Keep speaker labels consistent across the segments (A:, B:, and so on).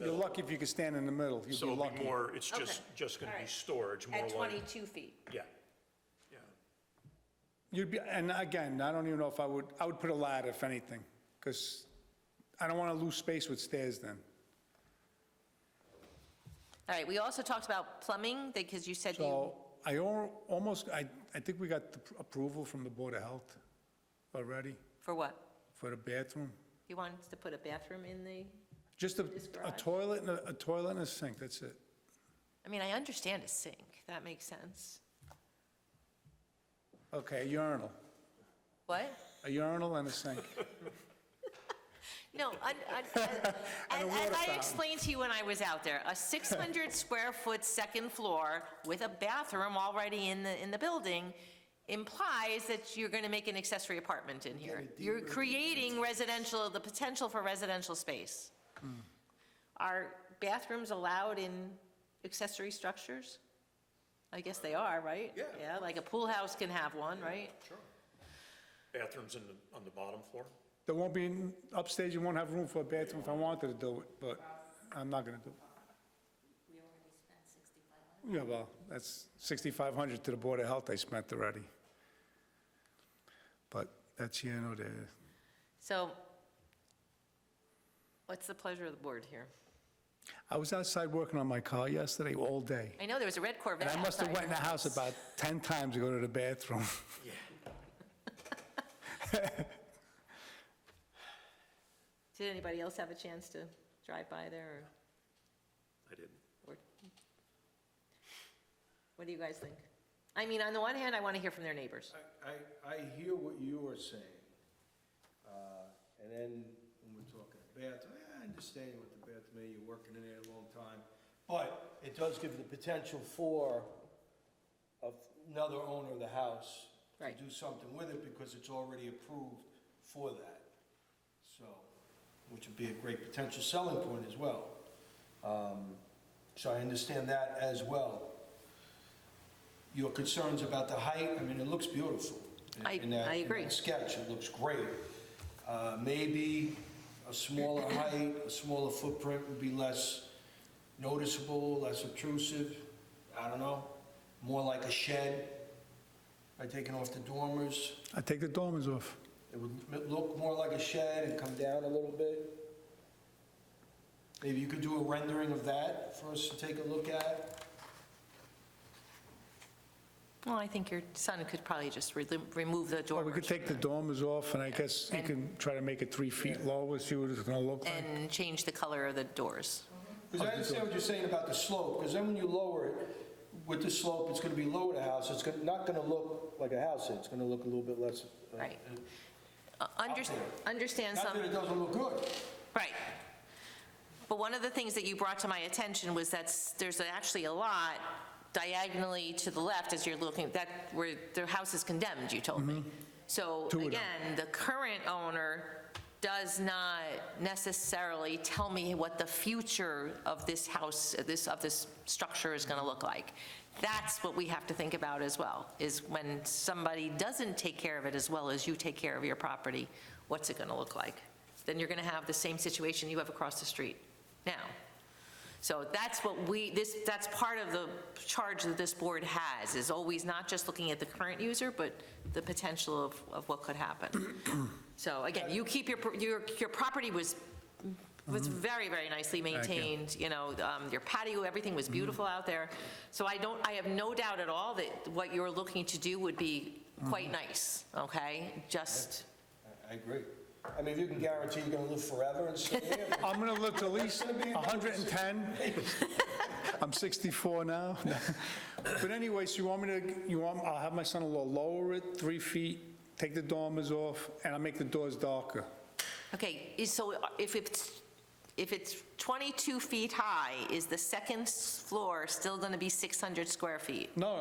A: You're lucky if you can stand in the middle. You'd be
B: So it'll be
A: lucky.
B: more, it's just,
C: Okay.
B: just going to
C: All
B: be
C: right.
B: storage, more
C: At
B: like,
C: 22 feet.
B: yeah, yeah.
A: You'd be, and again, I don't even know if I would, I would put a ladder if anything, because I don't want to lose space with stairs then.
D: All right, we also talked about plumbing, because you said you,
A: So I al- almost, I, I think we got the pr- approval from the Board of Health already
D: for what?
A: for the bathroom.
D: You wanted to put a bathroom in the,
A: Just a
D: This
A: a
D: garage.
A: toilet and a a toilet and a sink, that's it.
D: I mean, I understand a sink, that makes sense.
A: Okay, a urinal,
D: What?
A: a urinal and a sink.
D: No, I, I,
A: And a
D: as
A: water
D: I
A: fountain.
D: explained to you when I was out there, a 600 square foot second floor with a bathroom already in the, in the building implies that you're going to make an accessory apartment in here. You're creating residential, the potential for residential space. Are bathrooms allowed in accessory structures? I guess they are, right?
B: Yeah.
D: Yeah, like a pool house can have one, right?
B: Sure. Bathrooms in the, on the bottom floor?
A: There won't be, upstairs, you won't have room for a bathroom if I wanted to do it, but I'm not going to do it.
E: We already spent 6,500.
A: Yeah, well, that's 6,500 to the Board of Health I spent already. But that's here nor there.
D: So what's the pleasure of the board here?
A: I was outside working on my car yesterday all day,
D: I know, there was a red Corvette
A: and I must have
D: outside
A: went in the
D: your
A: house about 10 times to go to the bathroom.
B: Yeah.
D: Did anybody else have a chance to drive by there,
B: I didn't.
D: or, or, what do you guys think? I mean, on the one hand, I want to hear from their neighbors.
F: I, I hear what you are saying. Uh, And then when we're talking bathroom, eh, I understand what the bathroom, is, you're working in there a long time. But it does give the potential for of another owner of the house to
D: Right.
F: do something with it because it's already approved for that. So, which would be a great potential selling point as well. Um, So I understand that as well. Your concerns about the height, I mean, it looks beautiful. in-
D: I-
F: in that-
D: I
F: in
D: agree.
F: that sketch, it looks great. Uh, Maybe a smaller height, a smaller footprint would be less noticeable, less obtrusive, I don't know, more like a shed by taking off the dormers.
A: I take the dormers off.
F: It would m- look more like a shed and come down a little bit. Maybe you could do a rendering of that for us to take a look at.
D: Well, I think your son could probably just re- remove the
A: Or we
D: door
A: could take the dormers off, and I guess you can try to make it three feet lower, see what it's going to look like.
D: and change the color of the doors.
F: Because I understand what you're saying about the slope, because then when you lower it, with the slope, it's going to be lower the house, it's gonna- not going to look like a house, it's going to look a little bit less. uh,
D: Right. Uh, under- Understand
F: Not
D: some.
F: that it doesn't look good.
D: Right. But one of the things that you brought to my attention was that s- there's actually a lot diagonally to the left as you're looking, that, where the house is condemned, you told me. So
A: Two of them.
D: again, the current owner does not necessarily tell me what the future of this house, of this, of this structure is going to look like. That's what we have to think about as well, is when somebody doesn't take care of it as well as you take care of your property, what's it going to look like? Then you're going to have the same situation you have across the street now. So that's what we, this, that's part of the charge that this board has, is always not just looking at the current user, but the potential of, of what could happen. So again, you keep your, pro- your, your property was, was very, very nicely maintained, you know, um, your patio, everything was beautiful out there. So I don't, I have no doubt at all that what you're looking to do would be quite nice, okay? Just,
F: I- I agree. I mean, if you can guarantee you're going to live forever and stay there,
A: I'm going to look at least 110. I'm 64 now. But anyway, so you want me to, you want, I'll have my son-in-law lower it three feet, take the dormers off, and I'll make the doors darker.
D: Okay, is- so uh, if it's, if it's 22 feet high, is the second s- floor still going to be 600 square feet?
A: No,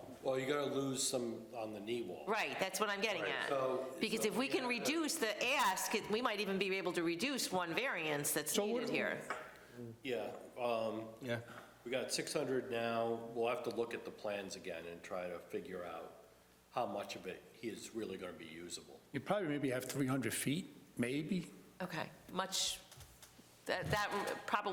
A: uh,
G: Well, you're gonna lose some on the knee wall.
D: Right, that's what I'm getting
G: Right,
D: at.
G: so-
D: Because if we can reduce the ask, it- we might even be able to reduce one variance that's
A: So what-
D: needed here.
G: Yeah, um. Yeah. We got six hundred now, we'll have to look at the plans again and try to figure out how much of it is really gonna be usable.
A: you probably maybe have 300 feet, maybe.
D: Okay, much, that, that probably